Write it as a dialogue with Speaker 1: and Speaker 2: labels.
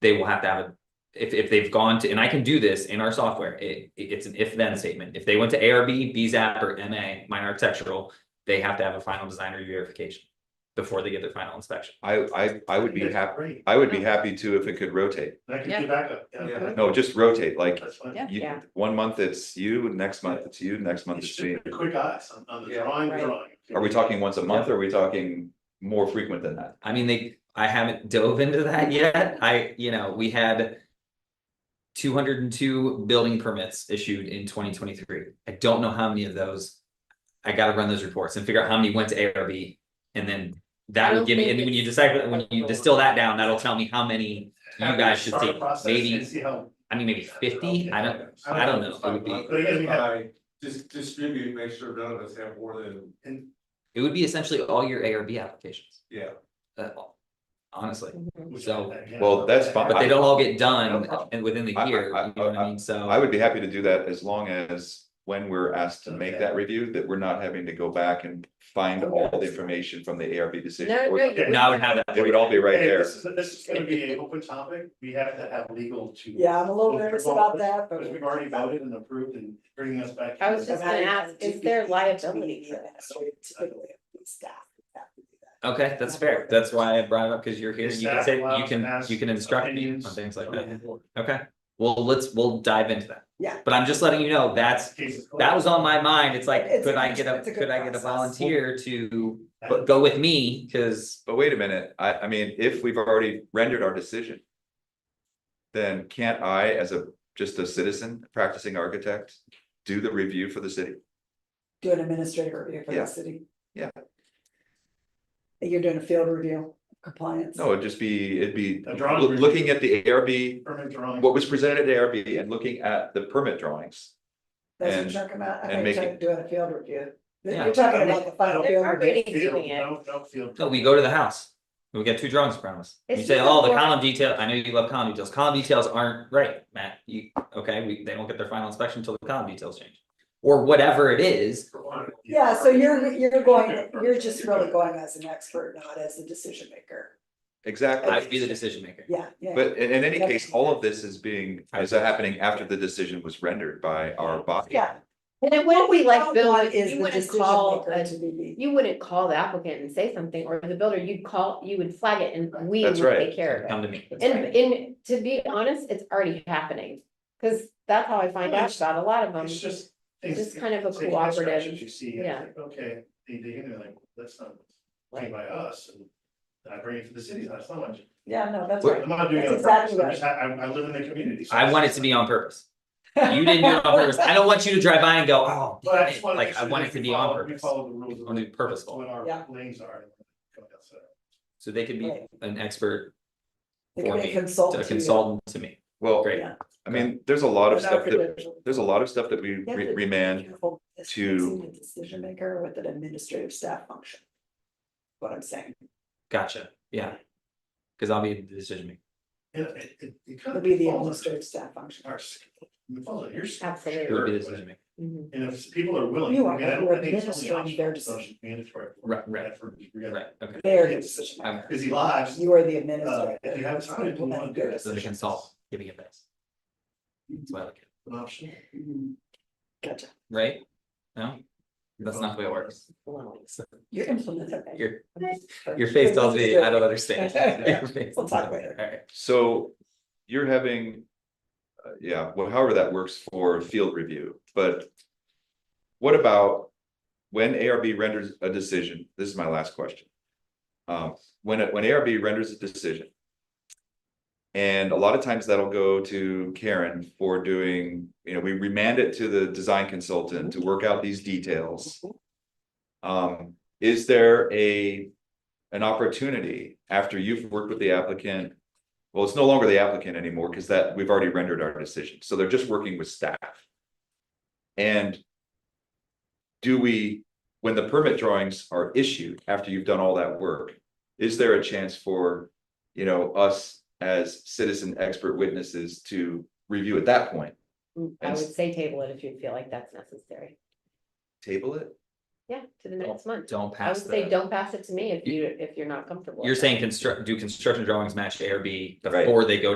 Speaker 1: they will have to have a. If, if they've gone to, and I can do this in our software, it, it- it's an if then statement. If they went to ARB, BZAP or MA, minor architectural, they have to have a final design review verification before they get their final inspection.
Speaker 2: I, I, I would be
Speaker 3: That's
Speaker 2: happy,
Speaker 3: great.
Speaker 2: I would be happy too if it could rotate.
Speaker 3: That
Speaker 4: Yeah.
Speaker 3: gives you backup. Yeah,
Speaker 4: Yeah.
Speaker 3: that's-
Speaker 2: No, just rotate, like,
Speaker 3: That's fine.
Speaker 4: Yeah.
Speaker 2: you, one month it's you, next month it's you, next month
Speaker 3: It's
Speaker 2: it's
Speaker 3: just
Speaker 2: me.
Speaker 3: a quick eyes on, on the
Speaker 2: Yeah.
Speaker 3: drawing,
Speaker 4: Right.
Speaker 3: drawing.
Speaker 2: Are we talking once a month or are we talking more frequent than that?
Speaker 1: I mean, they, I haven't dove into that yet. I, you know, we had. Two hundred and two building permits issued in twenty twenty-three. I don't know how many of those. I gotta run those reports and figure out how many went to ARB. And then that
Speaker 4: I
Speaker 1: would
Speaker 4: don't
Speaker 1: give me, and
Speaker 4: think
Speaker 1: when you
Speaker 4: it's-
Speaker 1: decide, when you distill that down, that'll tell me how many you guys should
Speaker 3: Start a
Speaker 1: take.
Speaker 3: process
Speaker 1: Maybe-
Speaker 3: and see how-
Speaker 1: I mean, maybe fifty, I don't, I don't know. It would be,
Speaker 3: But again, we have-
Speaker 5: I just distribute, make sure none of us have more than,
Speaker 3: and
Speaker 1: it would be essentially all your ARB applications,
Speaker 5: yeah.
Speaker 1: uh, honestly.
Speaker 6: Mm-hmm.
Speaker 3: we should
Speaker 1: So-
Speaker 3: do that again.
Speaker 2: Well, that's fine.
Speaker 1: But they don't all get
Speaker 2: No
Speaker 1: done
Speaker 2: problem.
Speaker 1: and within the
Speaker 2: I- I-
Speaker 1: year, you
Speaker 2: I-
Speaker 1: know what I mean? So.
Speaker 2: I would be happy to do that as long as when we're asked to make that review, that we're not having to go back and find all the information from the ARB decision.
Speaker 4: No, no, you-
Speaker 2: It
Speaker 1: No, I would have that.
Speaker 2: would all be right
Speaker 3: Hey,
Speaker 2: there.
Speaker 3: This is, this is gonna be an open topic, we have to have legal to.
Speaker 6: Yeah, I'm a little nervous about that, but.
Speaker 3: Because we've already voted and approved and bringing us back.
Speaker 4: I was just
Speaker 6: But I-
Speaker 4: gonna ask, is there liability for that?
Speaker 6: So we typically have these staff that have to do that.
Speaker 1: Okay, that's fair. That's why I brought it up, because you're here,
Speaker 3: Is
Speaker 1: you can
Speaker 3: that
Speaker 1: say, you
Speaker 3: allowed to
Speaker 1: can,
Speaker 3: ask
Speaker 1: you can instruct me on
Speaker 3: opinions
Speaker 1: things like
Speaker 3: from
Speaker 1: that.
Speaker 3: the board?
Speaker 1: Okay, well, let's, we'll dive into that.
Speaker 6: Yeah.
Speaker 1: But I'm just letting you know, that's,
Speaker 3: Cases closed.
Speaker 1: that was on my mind. It's like,
Speaker 6: It's a
Speaker 1: could I
Speaker 6: good-
Speaker 1: get a,
Speaker 6: it's a good
Speaker 1: could I get a
Speaker 6: process.
Speaker 1: volunteer to but go with me? Cause
Speaker 2: But wait a minute, I, I mean, if we've already rendered our decision. Then can't I, as a, just a citizen, practicing architect, do the review for the city?
Speaker 6: Do an administrative review for
Speaker 2: Yeah.
Speaker 6: the city.
Speaker 2: Yeah.
Speaker 6: You're doing a field review of compliance.
Speaker 2: No, it'd just be, it'd be
Speaker 3: A drawing
Speaker 2: loo-
Speaker 3: review.
Speaker 2: looking at the ARB,
Speaker 3: Permit drawing.
Speaker 2: what was presented at ARB and looking at the permit drawings.
Speaker 6: That's what
Speaker 2: and-
Speaker 6: you're talking about,
Speaker 2: and
Speaker 6: I think
Speaker 2: make
Speaker 6: you're doing a field review.
Speaker 1: Yeah.
Speaker 6: You're talking about the final
Speaker 4: They're
Speaker 6: field review.
Speaker 4: already doing it.
Speaker 3: No, no field.
Speaker 1: no, oh, we go to the house. We get two drawings from us. You
Speaker 4: It's
Speaker 1: say,
Speaker 4: just a
Speaker 1: oh, the
Speaker 4: form-
Speaker 1: column detail, I know you love column details. Column details aren't right, Matt. You, okay, we, they don't get their final inspection until the column details change. Or whatever it is,
Speaker 6: Yeah, so you're, you're going, you're just really going as an expert, not as a decision maker.
Speaker 2: Exactly,
Speaker 1: I'd be the decision maker.
Speaker 6: Yeah, yeah.
Speaker 2: but in, in any
Speaker 6: Yep.
Speaker 2: case, all of this is being, is happening after the decision was rendered by our body.
Speaker 6: Yeah.
Speaker 4: And it wouldn't be like
Speaker 6: What
Speaker 4: Bill,
Speaker 6: one
Speaker 4: if
Speaker 6: is
Speaker 4: you
Speaker 6: the
Speaker 4: wouldn't
Speaker 6: decision
Speaker 4: call,
Speaker 6: maker
Speaker 4: a-
Speaker 6: to be
Speaker 4: you wouldn't call the applicant and say something, or the builder, you'd call, you would flag it and we would
Speaker 2: That's right.
Speaker 4: take care of
Speaker 1: Come to me.
Speaker 4: it. And, and to be honest, it's already happening, cause that's how I find out about a lot of them,
Speaker 3: It's just.
Speaker 4: It's
Speaker 3: things-
Speaker 4: just kind of a
Speaker 3: taking instructions
Speaker 4: cooperative,
Speaker 3: You see, it's
Speaker 4: yeah.
Speaker 3: like, okay, they dig in, they're like, that's not, made
Speaker 4: Right.
Speaker 3: by us, and I bring it to the city, that's not much.
Speaker 6: Yeah, no, that's
Speaker 1: We're-
Speaker 6: right.
Speaker 3: I'm not doing it on
Speaker 6: That's
Speaker 3: purpose,
Speaker 6: exactly
Speaker 3: I'm just, I, I I live in the community. so
Speaker 1: I want it
Speaker 3: it's-
Speaker 1: to be on purpose. You didn't do it on purpose. I don't want you to drive by and go, oh,
Speaker 3: But I
Speaker 1: damn
Speaker 3: just
Speaker 1: it."
Speaker 3: wanna make
Speaker 1: like, I
Speaker 3: sure
Speaker 1: want
Speaker 3: that
Speaker 1: it to
Speaker 3: we
Speaker 1: be on
Speaker 3: follow- We
Speaker 1: purpose.
Speaker 3: follow the rules. of
Speaker 1: I want it to be purposeful.
Speaker 3: What
Speaker 6: Yeah.
Speaker 3: our lanes are. going outside.
Speaker 1: So they could be
Speaker 6: Right.
Speaker 1: an expert,
Speaker 6: They can
Speaker 1: for
Speaker 6: be
Speaker 1: me,
Speaker 6: a
Speaker 1: a
Speaker 6: consultant to you.
Speaker 1: consultant to me.
Speaker 2: Well,
Speaker 1: Great.
Speaker 6: Yeah.
Speaker 2: I mean, there's a lot of
Speaker 6: Without
Speaker 2: stuff that,
Speaker 6: credentials.
Speaker 2: there's a lot of stuff that we
Speaker 6: You have
Speaker 2: re-
Speaker 6: to be
Speaker 2: remand
Speaker 6: careful with
Speaker 2: to-
Speaker 6: mixing the Decision maker with an administrative staff function. What I'm saying,
Speaker 1: Gotcha. Yeah. Cause I'll be the decision maker.
Speaker 3: And it, it, it kind
Speaker 6: it'll
Speaker 3: of.
Speaker 6: be the
Speaker 3: falls
Speaker 6: administrative staff
Speaker 3: under
Speaker 6: function.
Speaker 3: Our, skill. it falls under your. skill.
Speaker 4: Absolutely.
Speaker 1: It would be the
Speaker 3: Sure,
Speaker 1: decision maker.
Speaker 4: Mhm.
Speaker 3: but- And if people are willing.
Speaker 6: You are,
Speaker 3: I mean, I don't
Speaker 6: you're
Speaker 3: think it's only
Speaker 6: administering
Speaker 3: optional,
Speaker 6: their
Speaker 3: it's
Speaker 6: decision.
Speaker 3: Mandatory.
Speaker 1: Right, right.
Speaker 3: That's where we gotta-
Speaker 1: Right, okay.
Speaker 6: They're the decision
Speaker 1: I'm-
Speaker 6: maker.
Speaker 3: Busy lives.
Speaker 6: You are the
Speaker 3: Uh,
Speaker 6: administrator.
Speaker 3: if you have time, you wanna do it.
Speaker 1: So the consultant giving advice. That's why I like it,
Speaker 3: An option.
Speaker 6: Mhm. Gotcha.
Speaker 1: right? No? That's not the way it works.
Speaker 6: You're implementing.
Speaker 1: Your, your face tells me, I don't understand. Your face-
Speaker 6: We'll talk later.
Speaker 1: All right.
Speaker 2: So you're having, uh, yeah, well, however that works for field review, but what about when ARB renders a decision? This is my last question. Um, when, it- when ARB renders a decision, and a lot of times that'll go to Karen for doing, you know, we remand it to the design consultant to work out these details. Um, is there a, an opportunity after you've worked with the applicant well, it's no longer the applicant anymore because that, we've already rendered our decision. So they're just working with staff. And do we, when the permit drawings are issued after you've done all that work, is there a chance for, you know, us as citizen expert witnesses to review at that point?
Speaker 4: Mm, I
Speaker 2: And-
Speaker 4: would say table it if you feel like that's necessary,
Speaker 2: Table it?
Speaker 4: yeah, to the next month,
Speaker 1: Don't
Speaker 4: I
Speaker 1: pass
Speaker 4: would say,
Speaker 1: the,
Speaker 4: don't pass it to me if you, if you're not comfortable.
Speaker 1: you're
Speaker 4: with it.
Speaker 1: saying construct, do construction drawings match ARB
Speaker 2: Right.
Speaker 1: before they go